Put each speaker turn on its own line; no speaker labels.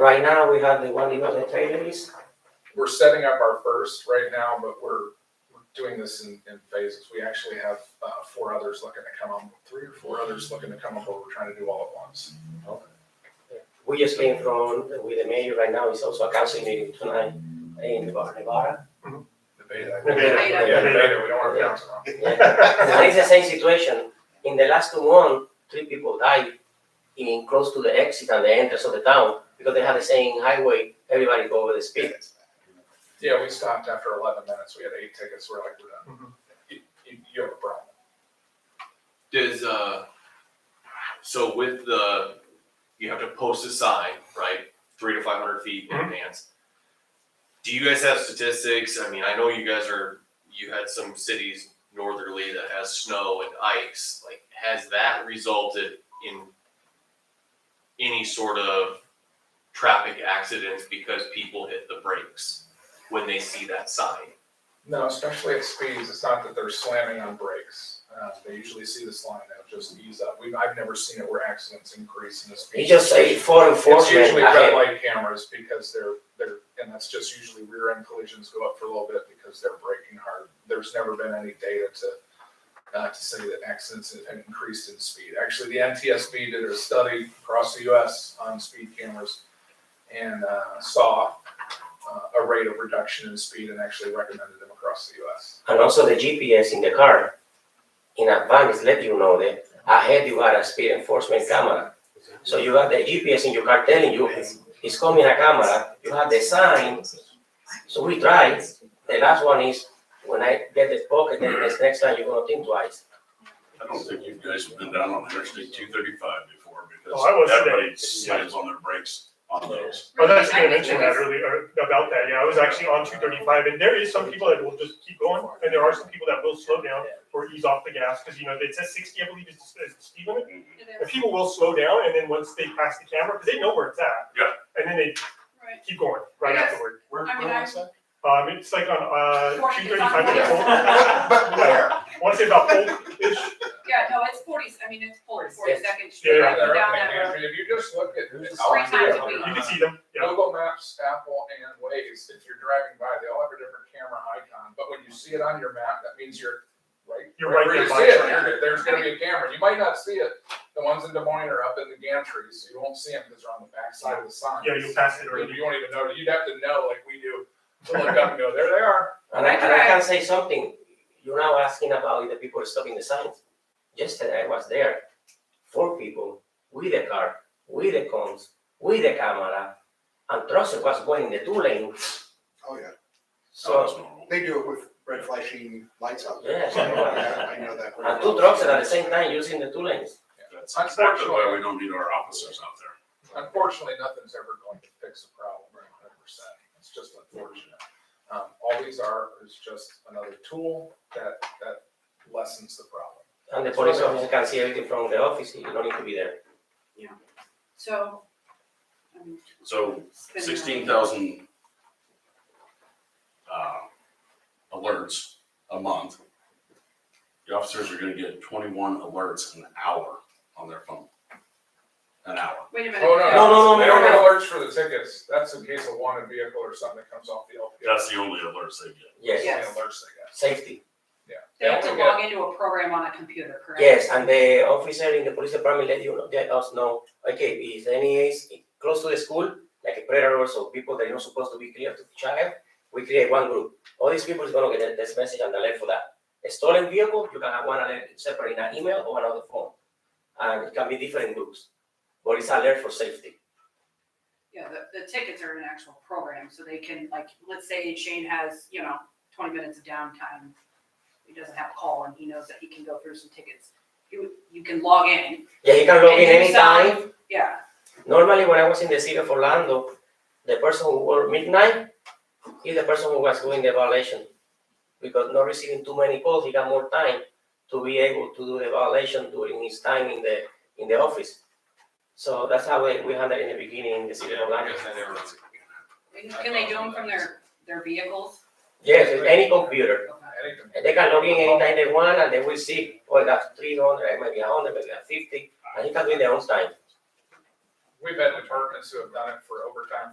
Right now, we have the one in the trailers.
We're setting up our first right now, but we're, we're doing this in, in phases. We actually have, uh, four others looking to come up, three or four others looking to come up, but we're trying to do all at once.
We just came from, with the mayor right now, it's also a council meeting tonight in Nevada.
The beta.
The beta.
Yeah, the beta, we don't want to bounce around.
And it's the same situation. In the last one, three people died in close to the exit and the entrance of the town because they had the same highway, everybody go over the speed.
Yeah, we stopped after eleven minutes. We had eight tickets. We're like, we're done. You, you, you have a problem.
Does, uh, so with the, you have to post a sign, right, three to five hundred feet in
Mhm.
advance. Do you guys have statistics? I mean, I know you guys are, you had some cities northerly that has snow and ice, like, has that resulted in any sort of traffic accidents because people hit the brakes when they see that sign?
No, especially at speeds, it's not that they're slamming on brakes. Uh, they usually see this line, they'll just ease up. We, I've never seen it where accidents increase in the speed.
It's just a for
It's
enforcement.
usually red
ahead.
light cameras because they're, they're, and that's just usually rear end collisions go up for a little bit because they're braking hard. There's never been any data to, uh, to say that accidents have increased in speed. Actually, the NTSB did a study across the US on speed cameras and, uh, saw, uh, a rate of reduction in speed and actually recommended them across the US.
And also the GPS in the car in advance let you know that ahead you got a speed enforcement camera. So you have the GPS in your car telling you it's coming a camera, you have the sign. So we try. The last one is when I get the pocket, then this next time you're gonna think twice.
I don't think you guys have been down on Interstate two thirty-five before
Oh, I was
because
there.
everybody slams on their brakes on those.
I was actually Oh, gonna mention that earlier, er, about that, yeah, I was actually on two thirty-five, and there is some people that will just keep going, and there are some people that will slow down or ease off the gas, because you know, it says sixty, I believe, is the is the speed limit, and people will slow down, and then once they pass the camera, because they know where it's at.
Yeah.
And then they
Right.
keep going right
Yes.
afterward,
Where,
I mean,
where was that?
um, it's like on, uh, two thirty-five,
Yeah.
I want to say about Polk-ish,
Yeah, no, it's forties, I mean, it's forty, forty-second
Yeah,
street,
yeah.
like
There,
down that
I
road.
mean, If you just look at.
Three
times a week.
you can see them, yeah,
Google Maps, Apple, and Waze, if you're driving by, they all have a different camera icon, but when you see it on your map, that means you're right.
You're right
where you
there
see
by
it,
it.
you're- There's gonna be a camera, you might not see it, the ones in Des Moines are up in the gantry, so you won't see them because they're on the backside of the sign.
yeah, you'll pass it
Or
or
You won't even know, you'd have to know like we do, to look up and go, there they are.
And I, and I can say something, you're now asking about if the people stopping the signs. Yesterday I was there, four people with a car, with the cones, with a camera, and Russell was going in the two lane,
Oh, yeah.
So
so,
Oh, that's normal.
They do it with red flashing lights out there.
yes.
Yeah, I know
Oh.
that.
And two trucks at the same time using the two lanes.
That's exactly why we don't need our officers out there.
Unfortunately, nothing's ever going to fix the problem, right, hundred percent, it's just unfortunate. Um, all these are is just another tool that, that lessens the problem.
And the police officer can see everything from the office, you don't need to be there.
So. I mean,
So
it's been, uh,
sixteen thousand uh, alerts a month. The officers are gonna get twenty-one alerts an hour on their phone. An hour.
Wait a minute.
Oh, no,
No, no, no,
They
no,
don't get
no.
alerts for the tickets, that's in case of wanted vehicle or something that comes off the LPO.
That's the only alerts they get.
Yes,
The
Yeah.
only
Yes.
Alerts they get.
safety.
They have to
only
log into a program on a computer, correct?
Yes, and the officer in the police department let you know, let us know, okay, if any is close to the school, like a predator, so people that are not supposed to be clear to each other, we create one group. All these people is gonna get this message and alert for that. A stolen vehicle, you can have one alert separate in an email or another phone. And it can be different groups, but it's alert for safety.
Yeah, the, the tickets are an actual program, so they can, like, let's say Shane has, you know, twenty minutes of downtime. He doesn't have a call and he knows that he can go through some tickets. You, you can log in,
Yeah, you can log in
And you sign-
anytime,
yeah,
Normally, when I was in the city of Orlando, the person who worked midnight is the person who was doing the violation. Because not receiving too many calls, he got more time to be able to do the violation during his time in the, in the office. So that's how we, we handled in the beginning in the city of Orlando.
can they do them from their, their vehicles?
Yes, with any computer.
Okay.
Anything.
And they can log in anytime they want and they will see, oh, I got three hundred, maybe a hundred, maybe a fifty, and he can do it their own time.
we've had departments who have done it for overtime